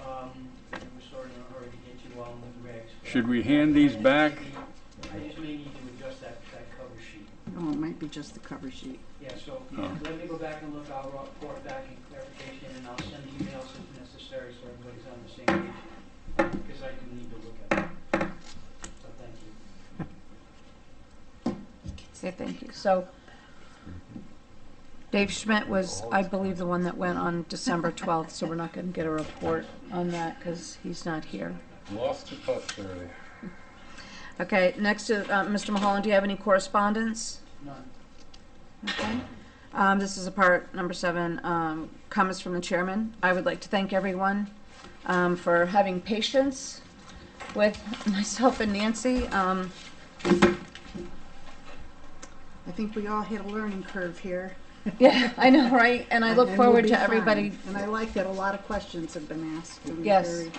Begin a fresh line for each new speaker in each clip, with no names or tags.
um, wrong with the regs. but
Should we hand these back?
I just may need to adjust that, that cover sheet.
Oh, it might be just the cover sheet.
Yeah, so
Oh.
let me go back and look, I'll report back in clarification, and I'll send emails if necessary, so everybody's on the same page, because I do need to look at it. So thank you.
Say thank you. So Dave Schmidt was, I believe, the one that went on December 12th, so we're not going to get a report on that because he's not here.
Lost to posterity.
Okay, next, is, uh, Mr. Mulholland, do you have any correspondence?
None.
Okay. Um, This is a part, number seven, um, comments from the chairman. I would like to thank everyone um, for having patience with myself and Nancy. Um,
I think we all hit a learning curve here.
Yeah, I know, right? And I look
and we'll
forward
be
to
fine.
everybody
And I like that a lot of questions have been asked. and
Yes.
very-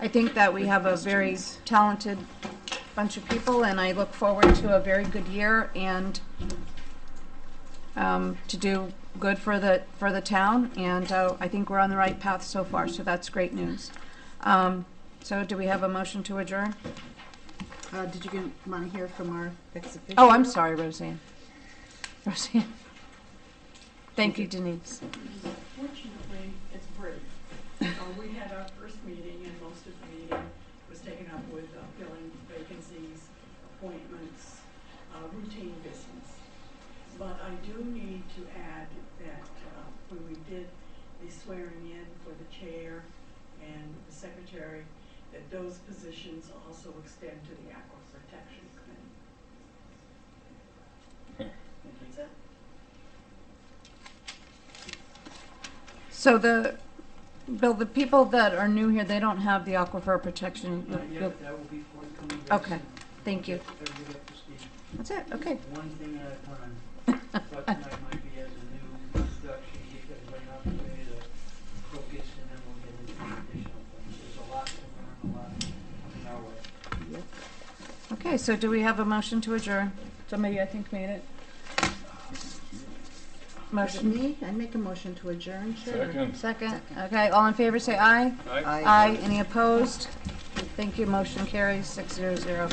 I think that we have a very talented bunch of people, and I look forward to a very good year and um, to do good for the, for the town, and uh, I think we're on the right path so far, so that's great news. Um, So do we have a motion to adjourn?
Uh, did you want to hear from our ex officio?
Oh, I'm sorry, Roseanne. Roseanne. Thank you, Denise.
Fortunately, it's brief. Uh, We had our first meeting, and most of the meeting was taken up with uh, filling vacancies, appointments, uh, routine business. But I do need to add that uh, when we did the swearing in for the chair and the secretary, that those positions also extend to the Aqua Protection Committee. That's it.
So the, Bill, the people that are new here, they don't have the aquifer protection.
Uh, Yeah, but that will be forthcoming. very
Okay,
soon.
thank you.
Everybody up to speed.
That's it, okay.
One thing at a time. But tonight might be as a new introduction, give everybody an opportunity to focus, and then we'll get into additional things. There's a lot to learn, a lot coming our way.
Okay, so do we have a motion to adjourn? Somebody, I think, made it.
That's
Motion,
me. I make a motion to adjourn, sure.
Second.
second. Okay, all in favor, say aye.
Aye.
Aye. Any opposed? Thank you, motion carries six zero zero.